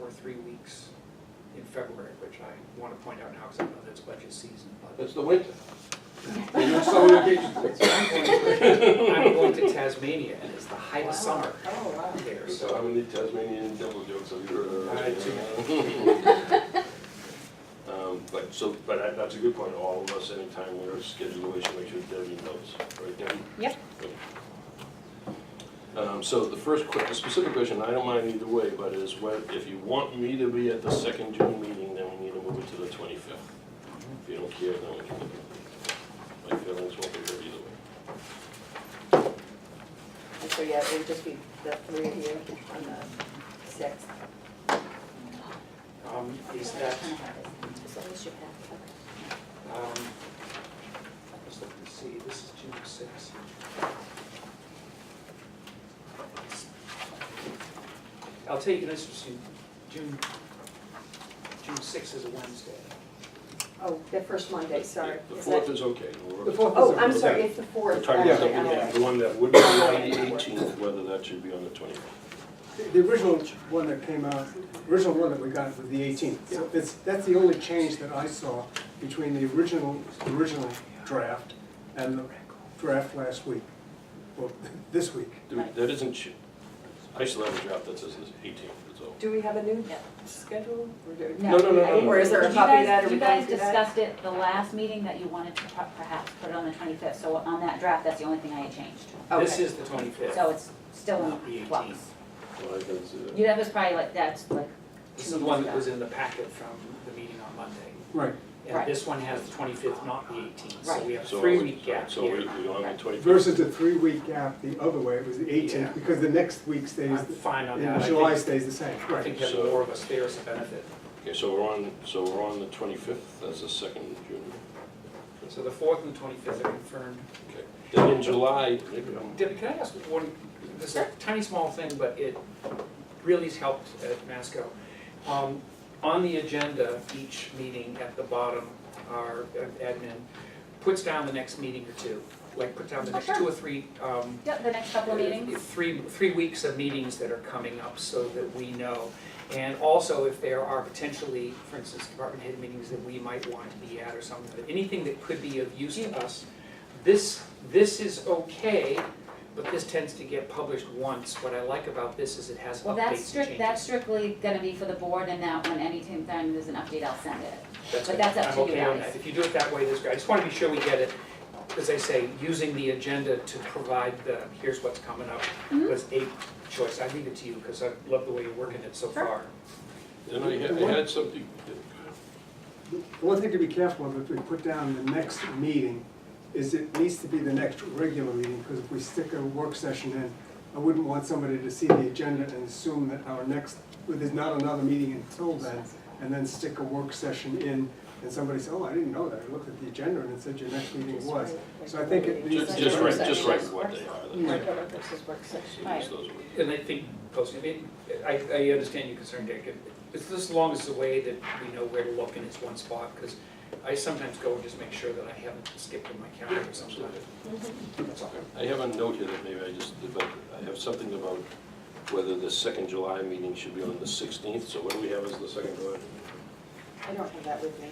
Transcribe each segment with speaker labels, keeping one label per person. Speaker 1: or three weeks in February, which I want to point out now because I know that's budget season, but
Speaker 2: It's the winter. There's no summer vacations.
Speaker 1: I'm going to Tasmania and it's the height of summer
Speaker 3: Oh, wow.
Speaker 1: there,
Speaker 2: So
Speaker 1: so.
Speaker 2: I'm in the Tasmanian devil joke, so you're. uh,
Speaker 1: I
Speaker 2: Um, but so, but that- that's a good point, all of us, anytime we're scheduling, we should make sure Debbie knows, right Debbie?
Speaker 4: Yep.
Speaker 2: Um, so the first que, the specific question, I don't mind either way, but is what, if you want me to be at the second June meeting, then we need to move it to the twenty-fifth. If you don't care, then we can. My feelings won't be hurt either way.
Speaker 3: And so, yeah, it would just be the three of you on the sixth.
Speaker 1: Um, is that,
Speaker 4: As long as you have,
Speaker 1: um, let's look and see, this is June sixth. I'll tell you, an interesting, June, June sixth is a Wednesday.
Speaker 3: Oh, the first Monday, sorry.
Speaker 2: The
Speaker 3: Is
Speaker 2: fourth
Speaker 3: that-
Speaker 2: is okay. We're-
Speaker 5: The fourth is
Speaker 3: Oh,
Speaker 5: a-
Speaker 3: I'm sorry, it's the fourth. Oh,
Speaker 2: We're talking about
Speaker 3: actually, I'm
Speaker 2: the
Speaker 3: like-
Speaker 2: one that would be on the eighteenth, whether that should be on the twenty-fifth.
Speaker 5: the- The original one that came out, original one that we got was the 18th. So that's, that's the only change that I saw between the original, original draft and the draft last week, or this week.
Speaker 2: That isn't, ch- I still have a draft that says it's eighteenth, that's all.
Speaker 3: Do we have a new
Speaker 6: No.
Speaker 3: schedule? Or do-
Speaker 6: No,
Speaker 2: no, no, no.
Speaker 3: Or is there
Speaker 6: You
Speaker 3: a copy of
Speaker 6: guys,
Speaker 3: that, or
Speaker 6: you
Speaker 3: we
Speaker 6: guys
Speaker 3: don't do that?
Speaker 6: discussed it the last meeting that you wanted to per- perhaps put it on the twenty-fifth, so on that draft, that's the only thing I had changed.
Speaker 1: This
Speaker 3: Okay.
Speaker 1: is the twenty-fifth.
Speaker 6: So it's still
Speaker 1: Not the
Speaker 6: in flux.
Speaker 1: 18th.
Speaker 2: Well, I uh, can see that.
Speaker 6: You, that was probably like, that's like,
Speaker 1: This is the one that was in the packet from the meeting on Monday.
Speaker 5: Right.
Speaker 1: And
Speaker 6: Right.
Speaker 1: this one has the twenty-fifth, not the eighteenth, so
Speaker 6: Right.
Speaker 1: we have
Speaker 2: So
Speaker 1: three
Speaker 2: we-
Speaker 1: week gap
Speaker 2: So we,
Speaker 1: here.
Speaker 2: we on the twenty-fifth.
Speaker 5: Versus the three-week gap the other way, it was the
Speaker 1: Yeah.
Speaker 5: 18th, because the next week stays,
Speaker 1: I'm fine on that.
Speaker 5: and
Speaker 1: I
Speaker 5: July
Speaker 1: think-
Speaker 5: stays the same.
Speaker 1: I think
Speaker 5: Right.
Speaker 1: having more of us there is a benefit.
Speaker 2: Okay, so we're on, so we're on the twenty-fifth, that's the second June.
Speaker 1: So the fourth and twenty-fifth are confirmed.
Speaker 2: Okay. Then in July, maybe I'm,
Speaker 1: Debbie, can I ask one, this is a tiny, small thing, but it really has helped at Masco. Um, On the agenda, each meeting at the bottom, our admin puts down the next meeting or two, like puts down the
Speaker 6: Oh,
Speaker 1: next
Speaker 6: sure.
Speaker 1: two or three um,
Speaker 6: yep, the next couple of meetings.
Speaker 1: Three, three weeks of meetings that are coming up so that we know. And also if there are potentially, for instance, department head meetings that we might want to be at or something, but anything that could be of use to us. This, this is okay, but this tends to get published once. What I like about this is it has
Speaker 6: Well,
Speaker 1: updates and
Speaker 6: that's
Speaker 1: changes.
Speaker 6: strict, that's strictly gonna be for the board, and that when anytime there's an update, I'll send it.
Speaker 1: That's
Speaker 6: But
Speaker 1: it.
Speaker 6: that's up to you
Speaker 1: I'm okay on
Speaker 6: guys.
Speaker 1: that, if you do it that way, that's great, I just wanna be sure we get it, as I say, using the agenda to provide the, here's what's coming up,
Speaker 6: Mhm.
Speaker 1: was a choice, I leave it to you, cause I love the way you're working it so
Speaker 6: Sure.
Speaker 1: far.
Speaker 2: then I had, I had something,
Speaker 5: The one thing to be careful of, if we put down the next meeting, is it needs to be the next regular meeting, because if we stick a work session in, I wouldn't want somebody to see the agenda and assume that our next, well, there's not another meeting until then, and then stick a work session in, and somebody say, oh, I didn't know that, I looked at the agenda and it said your next meeting was. So I think it needs.
Speaker 2: just,
Speaker 5: to
Speaker 2: just
Speaker 5: be-
Speaker 2: write, just write what they are. that's-
Speaker 3: Regular versus work session.
Speaker 2: so just those words.
Speaker 1: And I think, posting, I mean, I, I understand your concern, Dick, It- it's as long as the way that we know where to look and it's one spot, cause I sometimes go and just make sure that I haven't skipped in my calendar sometimes. That's all.
Speaker 2: I have a note here that maybe I just, did, but I have something about whether the second July meeting should be on the sixteenth, so what do we have as the second July?
Speaker 3: I don't have that with me.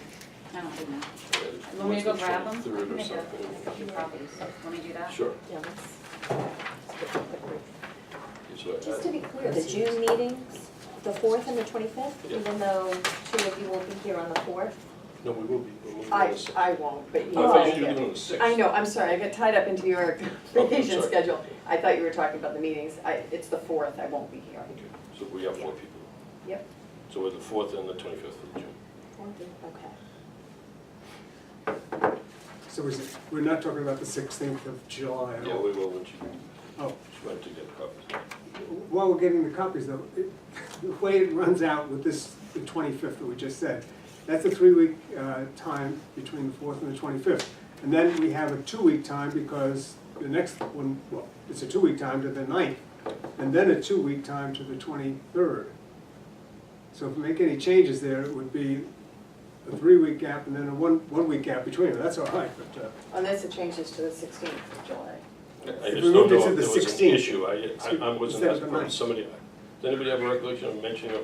Speaker 6: I don't think that.
Speaker 2: Uh,
Speaker 6: Want me to go
Speaker 2: what's the
Speaker 6: grab them? I
Speaker 2: 23rd
Speaker 6: can
Speaker 2: or
Speaker 6: make a
Speaker 2: something?
Speaker 6: few copies. Want me to do that?
Speaker 2: Sure.
Speaker 3: Yeah,
Speaker 2: It's what I-
Speaker 4: Just to be clear, the June meetings, the fourth and the twenty-fifth,
Speaker 2: Yeah.
Speaker 4: even though two of you will be here on the fourth.
Speaker 2: No, we will be, we'll move on
Speaker 3: I,
Speaker 2: the sixth.
Speaker 3: I won't, but
Speaker 2: I
Speaker 3: you.
Speaker 2: thought
Speaker 3: will
Speaker 2: you were
Speaker 3: get-
Speaker 2: doing it on the sixth.
Speaker 3: I know, I'm sorry, I got tied up into your
Speaker 2: Oh,
Speaker 3: vacation
Speaker 2: sorry.
Speaker 3: schedule. I thought you were talking about the meetings. I, it's the fourth, I won't be here.
Speaker 2: Okay, So we have four people.
Speaker 3: Yep.
Speaker 2: So we're the fourth and the twenty-fifth of June.
Speaker 3: Okay.
Speaker 5: So we're, we're not talking about the sixteenth of July at
Speaker 2: Yeah,
Speaker 5: all.
Speaker 2: we will, when she,
Speaker 5: Oh,
Speaker 2: she went to get copies.
Speaker 5: While we're getting the copies though, it- the way it runs out with this, the twenty-fifth that we just said, that's a three-week uh, time between the fourth and the twenty-fifth. And then we have a two-week time because the next one, well, it's a two-week time to the 9th, and then a two-week time to the twenty-third. So if we make any changes there, it would be a three-week gap and then a one, one-week gap between them, that's all right, but, uh,
Speaker 3: Unless it changes to the sixteenth of July.
Speaker 2: I
Speaker 5: If
Speaker 2: just
Speaker 5: we
Speaker 2: don't
Speaker 5: moved it
Speaker 2: know
Speaker 5: to
Speaker 2: if
Speaker 5: the
Speaker 2: there was an
Speaker 5: 16th,
Speaker 2: issue, I, I- I wasn't,
Speaker 5: instead of the
Speaker 2: asking.
Speaker 5: 9th.
Speaker 2: somebody, does anybody have a recollection of mentioning a